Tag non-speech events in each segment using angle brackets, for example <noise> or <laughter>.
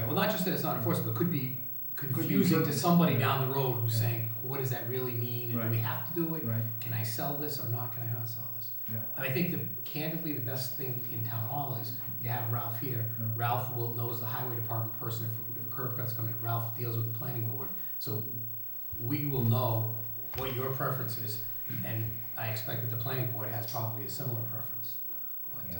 well, not just that it's not enforceable, it could be confusing to somebody down the road who's Yeah. saying, well, what does that really mean? And do we Right. have to do it? Right, Can I sell this or not? Can I not sell this? yeah, And I think the candidly, the best thing in town hall is you have Ralph here. Yeah. Ralph will, knows the highway department person. If, if a curb cut's coming, Ralph deals with the planning board. So we will know what your preference is. And I expect that the planning board has probably a similar preference. But, uh,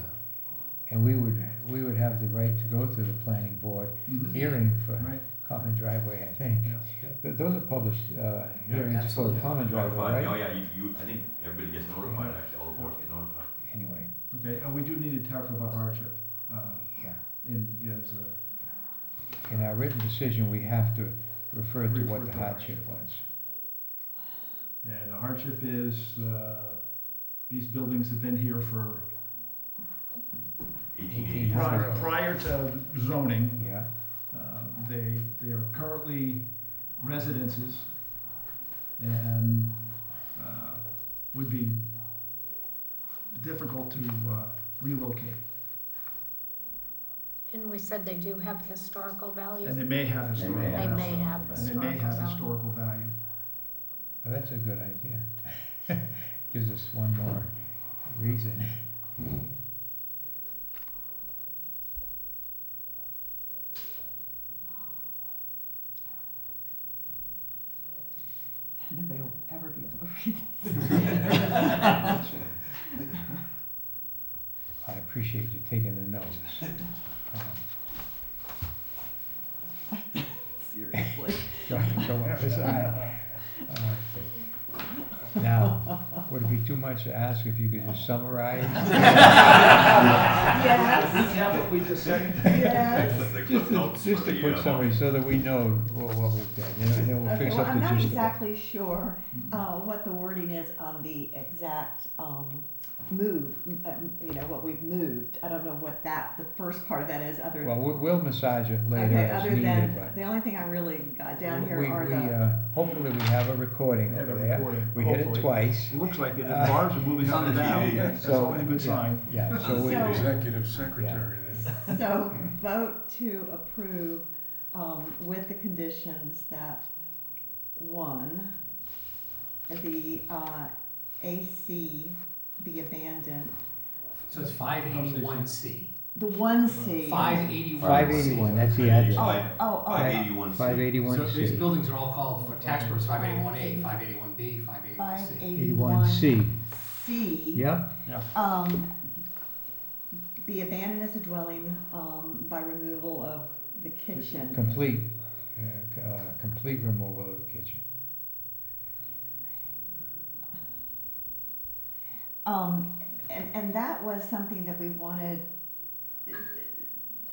And we would, we would have the right to go through the planning board hearing for right, common driveway, I think. yeah. Th- Those are published, uh, hearings for absolutely. the common driveway, Notified, oh right? yeah, you, you, I think everybody gets notified, actually, all the boards get notified. Anyway, Okay, and we do need to talk about hardship, uh, yeah. in, is, uh, In our written decision, we have to refer to Refer what the to hardship was. And the hardship is, uh, these buildings have been here for, Eighteen Eighteen eighty. hundred. prior, prior to zoning. Yeah, Uh, they, they are currently residences and, uh, would be difficult to uh, relocate. And we said they do have historical value. And they may have They may historical. They have may value. have And they may historical have value. historical value. well, that's a good idea. <laughs> Gives us one more reason. Nobody will ever be able to <laughs> read I appreciate you taking the notes. Um, seriously. Go, go on, <laughs> listen, I- uh, Now, would it be too much to ask if you could just summarize? Yes. Recap what we just said. <laughs> Yes. The Just cliff to, notes just for to the, put uh, summary so that we know what, what we've done, you know, and then we'll Okay, fix well, up I'm the not gist of it. exactly sure uh, what the wording is on the exact um, move, um, you know, what we've moved. I don't know what that, the first part of that is, other Well, we- we'll massage it later Okay, as other needed, than, but. the only thing I really got down here we- are we, the, uh, Hopefully, we have a recording Have a over there. recording, We hit it hopefully. twice. It looks like it, the Uh, bars are moving up and It's on the down, TV, that's so- always a good sign. <laughs> Yeah, so we, So- executive secretary then. so vote to approve um, with the conditions that, one, the uh, AC be abandoned, so it's five eighty-one C. the one C. Five eighty-one five C. eighty-one, that's the Oh, address. I- Oh, oh, Five eighty-one. Five So eighty-one these C. buildings are all called, for tax purposes, five eighty-one A, five eighty-one B, five eighty-one Five C. eighty-one Eighty-one C, C. yeah? Um, be abandoned as a dwelling, um, by removal of the kitchen. Complete, uh, c- uh, complete removal of the kitchen. Um, and, and that was something that we wanted,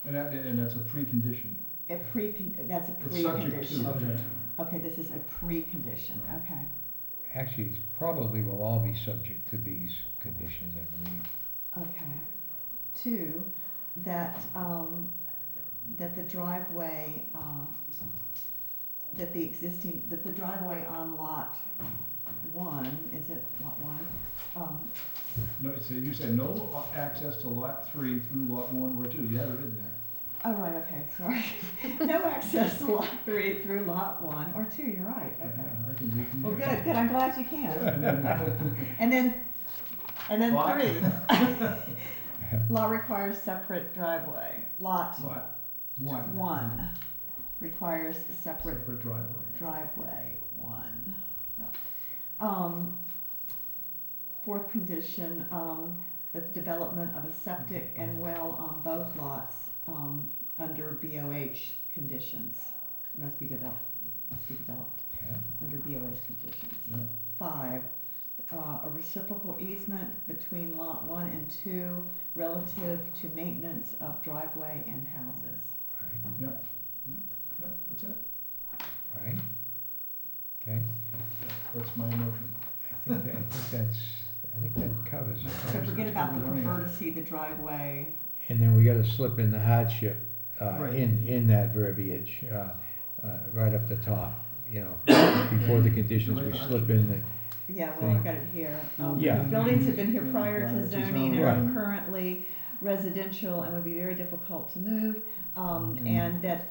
And that, and that's a precondition. a pre, that's a It's subject to. precondition. Okay, this is a precondition, okay. Actually, it's probably will all be subject to these conditions, I believe. Okay. Two, that, um, that the driveway, uh, that the existing, that the driveway on lot one, is it lot one? Um, No, so you said no access to lot three through lot one or two, you have it written there. oh, right, okay, sorry. <laughs> No access to lot three through lot one or two, you're right, okay. I can read from Well, there. good, good, I'm glad you can. And then- And then, and then Lot. three. Law requires separate driveway. Lot <laughs> Lot one, one requires a separate separate driveway. driveway one. Um, fourth condition, um, that the development of a septic and well on both lots, um, under BOH conditions must be developed, must be developed Yeah. under BOH conditions. Yeah. Five, uh, a reciprocal easement between lot one and two relative to maintenance of driveway and houses. Right, Yeah, that's it, right? Okay, that's my motion. I think that, I think that's, I think that covers So it. forget about the Yeah. pervertity, the driveway, And then we gotta slip in the hardship, uh, Right. in, in that verbiage, uh, uh, right up the top, you <coughs> know, before the conditions, we slip in the, Yeah, well, I've thing. got it here. Um, Yeah. Buildings have been here prior Prior to to zoning and zoning. are currently residential and would be very difficult to move. Um, and that,